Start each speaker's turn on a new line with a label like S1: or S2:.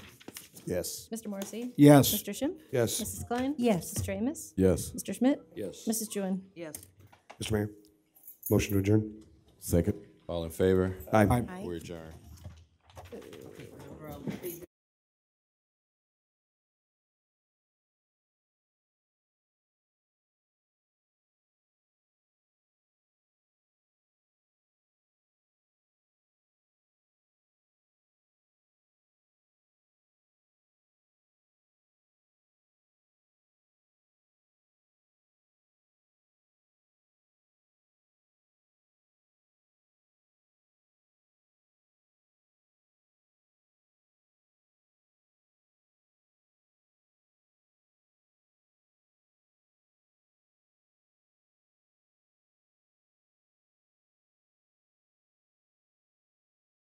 S1: Yes.
S2: Mr. Morrissey?
S3: Yes.
S2: Mr. Schimpf?
S1: Yes.
S2: Mrs. Klein?
S4: Yes.
S2: Mr. Amos?
S5: Yes.
S2: Mr. Schmidt?
S6: Yes.
S2: Mrs. Jewin?
S4: Yes.
S1: Mr. Mayor, motion to adjourn.
S5: Second. All in favor?
S1: Aye.
S5: We adjourn.